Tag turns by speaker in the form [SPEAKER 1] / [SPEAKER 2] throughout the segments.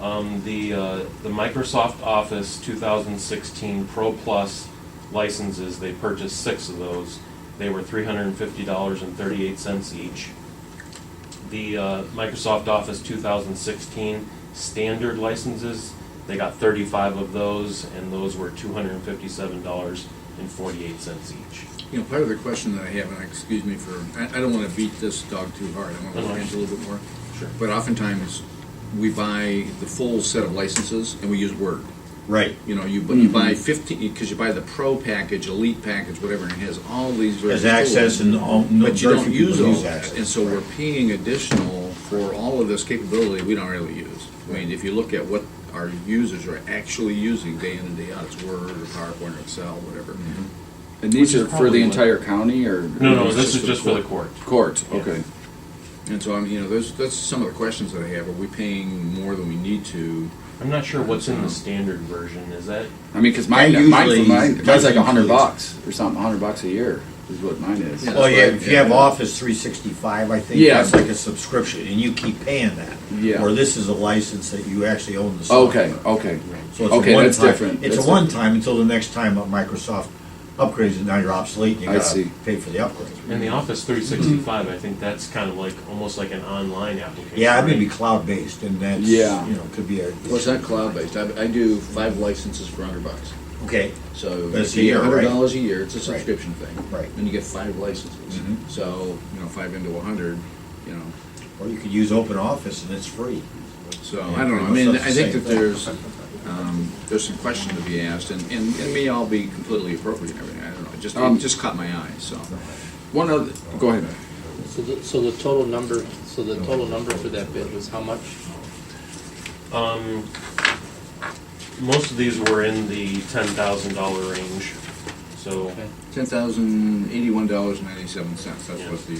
[SPEAKER 1] Um, the, uh, the Microsoft Office 2016 Pro Plus licenses, they purchased six of those. They were $350.38 each. The uh, Microsoft Office 2016 standard licenses, they got 35 of those, and those were $257.48 each.
[SPEAKER 2] You know, part of the question that I have, and excuse me for, I, I don't want to beat this dog too hard. I want to
[SPEAKER 1] Uh-huh.
[SPEAKER 2] look into it a little bit more.
[SPEAKER 1] Sure.
[SPEAKER 2] But oftentimes, we buy the full set of licenses and we use Word.
[SPEAKER 3] Right.
[SPEAKER 2] You know, you, bu-
[SPEAKER 3] Mm-hmm.
[SPEAKER 2] you buy 15, because you buy the Pro package, Elite package, whatever, and it has all these. versions
[SPEAKER 3] Has
[SPEAKER 2] of it.
[SPEAKER 3] access and all, no,
[SPEAKER 2] But you
[SPEAKER 3] very
[SPEAKER 2] don't
[SPEAKER 3] few
[SPEAKER 2] use
[SPEAKER 3] people
[SPEAKER 2] all
[SPEAKER 3] use
[SPEAKER 2] that,
[SPEAKER 3] access.
[SPEAKER 2] and so we're paying additional for all of this capability we don't really use. I mean, if you look at what our users are actually using day in and day out, it's Word or PowerPoint or Excel, whatever.
[SPEAKER 3] Mm-hmm.
[SPEAKER 4] And these
[SPEAKER 1] Which is
[SPEAKER 4] are for
[SPEAKER 1] probably
[SPEAKER 4] the
[SPEAKER 1] what-
[SPEAKER 4] entire county or?
[SPEAKER 1] No, no, this is just for the court.
[SPEAKER 4] Court,
[SPEAKER 1] Yeah.
[SPEAKER 4] okay.
[SPEAKER 2] And so, I mean, you know, those, that's some of the questions that I have. Are we paying more than we need to?
[SPEAKER 1] I'm not sure what's
[SPEAKER 4] Uh-huh.
[SPEAKER 1] in the standard version, is that?
[SPEAKER 4] I mean, cause
[SPEAKER 3] I
[SPEAKER 4] mine,
[SPEAKER 3] usually-
[SPEAKER 4] mine, mine- mine's like
[SPEAKER 3] I
[SPEAKER 4] a hundred
[SPEAKER 3] usually-
[SPEAKER 4] bucks or something, a hundred bucks a year is what mine is.
[SPEAKER 2] Yeah.
[SPEAKER 3] Well, Oh, yeah,
[SPEAKER 2] that's
[SPEAKER 3] if
[SPEAKER 2] right,
[SPEAKER 3] you have
[SPEAKER 2] yeah.
[SPEAKER 3] Office three sixty-five, I think,
[SPEAKER 4] Yeah.
[SPEAKER 3] that's like a subscription, and you keep paying that.
[SPEAKER 4] Yeah.
[SPEAKER 3] Or this is a license that you actually own the software.
[SPEAKER 4] Oh, Okay, okay.
[SPEAKER 3] So it's a
[SPEAKER 4] Okay, that's
[SPEAKER 3] one-time-
[SPEAKER 4] different.
[SPEAKER 3] It's a
[SPEAKER 4] That's
[SPEAKER 3] one-time until the next time Microsoft upgrades it, now you're obsolete, and
[SPEAKER 4] I
[SPEAKER 3] you
[SPEAKER 4] see.
[SPEAKER 3] gotta pay for the upgrade.
[SPEAKER 1] In the Office 365, I think that's kind of like, almost like an online application.
[SPEAKER 3] Yeah, I mean, be
[SPEAKER 1] right?
[SPEAKER 3] cloud-based, and that's, you
[SPEAKER 4] Yeah.
[SPEAKER 3] know, could be a.
[SPEAKER 2] Well, it's not cloud-based. I, I do five licenses for hundred bucks.
[SPEAKER 3] Okay,
[SPEAKER 2] So
[SPEAKER 3] That's
[SPEAKER 2] if you get
[SPEAKER 3] a year,
[SPEAKER 2] hundred
[SPEAKER 3] right?
[SPEAKER 2] dollars a year, it's a
[SPEAKER 3] Right.
[SPEAKER 2] subscription thing.
[SPEAKER 3] Right.
[SPEAKER 2] And you get five licenses.
[SPEAKER 3] Mhm.
[SPEAKER 2] So, you know, five into a hundred, you know,
[SPEAKER 3] or you could use Open Office, and it's free.
[SPEAKER 2] so,
[SPEAKER 3] Yeah,
[SPEAKER 2] I don't know. I
[SPEAKER 3] pretty
[SPEAKER 2] mean,
[SPEAKER 3] much
[SPEAKER 2] I
[SPEAKER 3] that's the
[SPEAKER 2] think that
[SPEAKER 3] same
[SPEAKER 2] there's,
[SPEAKER 3] thing.
[SPEAKER 2] um, there's some question to be asked and, and it may all be completely appropriate and everything. I don't know. It just, it
[SPEAKER 4] Um,
[SPEAKER 2] just caught my eye, so.
[SPEAKER 4] One other, go ahead.
[SPEAKER 5] So the, so the total number, so the total number for that bid was how much?
[SPEAKER 1] Um, most of these were in the $10,000 range, so,
[SPEAKER 5] Okay.
[SPEAKER 2] Ten thousand eighty-one dollars and ninety-seven cents. That's what the,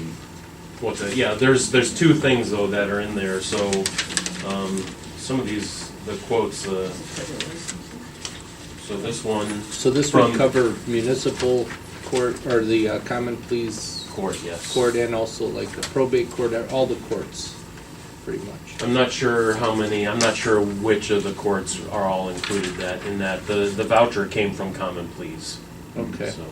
[SPEAKER 1] what's it, yeah, there's, there's two things though that are in there, so, um, some of these, the quotes, uh, so this one,
[SPEAKER 5] So this
[SPEAKER 1] From-
[SPEAKER 5] would cover municipal court, or the uh, common pleas
[SPEAKER 1] court, yes.
[SPEAKER 5] court, and also like the probate court, uh, all the courts, pretty much.
[SPEAKER 1] I'm not sure how many, I'm not sure which of the courts are all included that, in that, the, the voucher came from Common Pleas.
[SPEAKER 5] Okay.
[SPEAKER 1] So.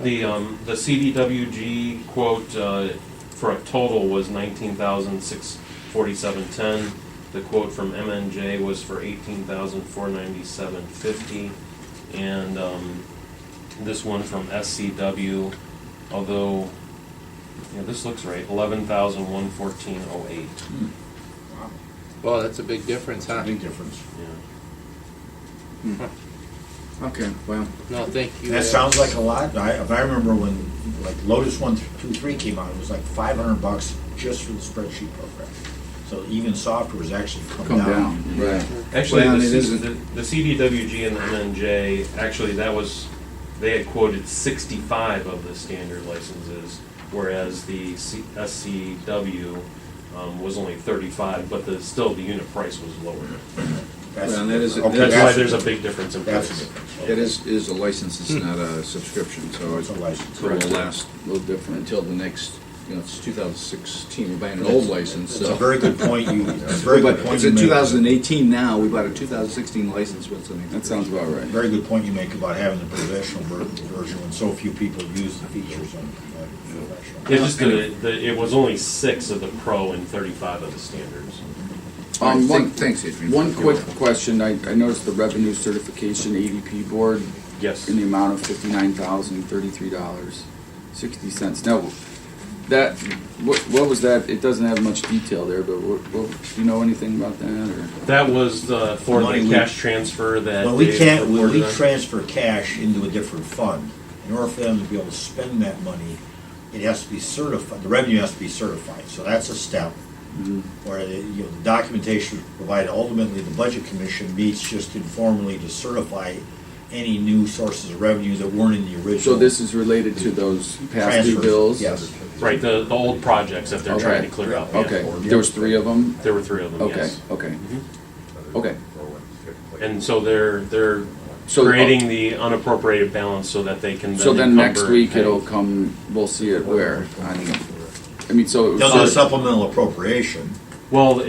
[SPEAKER 1] The, um, the CDWG quote, uh, for a total was nineteen thousand six forty-seven ten. The quote from MNJ was for eighteen thousand four ninety-seven fifty. And, um, this one from SCW, although, yeah, this looks right, eleven thousand one fourteen oh eight.
[SPEAKER 5] Well, that's a big difference, huh?
[SPEAKER 3] Big difference.
[SPEAKER 1] Yeah.
[SPEAKER 2] okay, well,
[SPEAKER 5] No, thank you.
[SPEAKER 3] That
[SPEAKER 5] Ed.
[SPEAKER 3] sounds like a lot, I, if I remember when, like Lotus one, two, three came out, it was like five hundred bucks just for the spreadsheet program. So even software has actually
[SPEAKER 4] Come
[SPEAKER 3] come down.
[SPEAKER 4] down.
[SPEAKER 2] right.
[SPEAKER 1] Actually,
[SPEAKER 2] Well,
[SPEAKER 1] the,
[SPEAKER 2] it
[SPEAKER 1] C-
[SPEAKER 2] isn't.
[SPEAKER 1] the, the CDWG and the MNJ, actually, that was, they had quoted 65 of the standard licenses, whereas the C, SCW um, was only 35, but the, still the unit price was lower.
[SPEAKER 3] That's-
[SPEAKER 2] Well, that is-
[SPEAKER 3] okay,
[SPEAKER 1] That's why
[SPEAKER 3] that's-
[SPEAKER 1] there's a big difference in
[SPEAKER 3] that's
[SPEAKER 1] price.
[SPEAKER 3] a difference.
[SPEAKER 2] It is, is a license, it's not a subscription, so
[SPEAKER 3] It's
[SPEAKER 2] it's
[SPEAKER 3] a license.
[SPEAKER 2] So it'll
[SPEAKER 4] Correct.
[SPEAKER 2] last
[SPEAKER 4] A little different.
[SPEAKER 2] until the next, you know, it's 2016, we're buying an old license,
[SPEAKER 3] It's a
[SPEAKER 2] so.
[SPEAKER 3] very good point you, it's a very good
[SPEAKER 2] But
[SPEAKER 3] point
[SPEAKER 2] it's
[SPEAKER 3] you
[SPEAKER 2] in
[SPEAKER 3] make.
[SPEAKER 2] 2018 now, we bought a 2016 license, what's the name?
[SPEAKER 4] That sounds about right.
[SPEAKER 3] Very good point you make about having the professional ver- version when so few people use the features on the
[SPEAKER 1] It's
[SPEAKER 3] professional.
[SPEAKER 1] just the, the, it was only six of the pro and 35 of the standards.
[SPEAKER 2] All right,
[SPEAKER 4] Um, one-
[SPEAKER 2] thank- Thanks, Adrian.
[SPEAKER 4] One
[SPEAKER 2] You're
[SPEAKER 4] quick
[SPEAKER 2] welcome.
[SPEAKER 4] question. I, I noticed the revenue certification ADP board
[SPEAKER 1] Yes.
[SPEAKER 4] in the amount of fifty-nine thousand thirty-three dollars sixty cents. Now, that what, what was that? It doesn't have much detail there, but what, what, do you know anything about that? Or
[SPEAKER 1] That was uh, for
[SPEAKER 3] Money
[SPEAKER 1] the
[SPEAKER 3] we-
[SPEAKER 1] cash transfer that
[SPEAKER 3] When we
[SPEAKER 1] Dave
[SPEAKER 3] can't, when
[SPEAKER 1] reported
[SPEAKER 3] we
[SPEAKER 1] on.
[SPEAKER 3] transfer cash into a different fund, in order for them to be able to spend that money, it has to be certified, the revenue has to be certified, so that's a step.
[SPEAKER 4] Mm-hmm.
[SPEAKER 3] Where, the- you know, the documentation provided, ultimately, the budget commission meets just informally to certify any new sources of revenue that weren't in the original.
[SPEAKER 4] so this is related to those past due
[SPEAKER 3] transfers.
[SPEAKER 4] bills.
[SPEAKER 3] Yes.
[SPEAKER 1] Right, the, the old projects that they're trying to
[SPEAKER 4] Okay.
[SPEAKER 1] clear up. yeah.
[SPEAKER 4] Okay. There was three of them.
[SPEAKER 1] There were three of them,
[SPEAKER 4] Okay.
[SPEAKER 1] yes.
[SPEAKER 4] Okay.
[SPEAKER 1] Mhm.
[SPEAKER 4] Okay.
[SPEAKER 1] And so they're, they're
[SPEAKER 4] So- uh,
[SPEAKER 1] creating the unappropriated balance so that they can then
[SPEAKER 4] So then next
[SPEAKER 1] encumber and
[SPEAKER 4] week
[SPEAKER 1] pay.
[SPEAKER 4] it'll come. We'll see it where. On, I mean, so it was
[SPEAKER 3] They'll do a
[SPEAKER 4] sort of-
[SPEAKER 3] supplemental appropriation.
[SPEAKER 1] Well,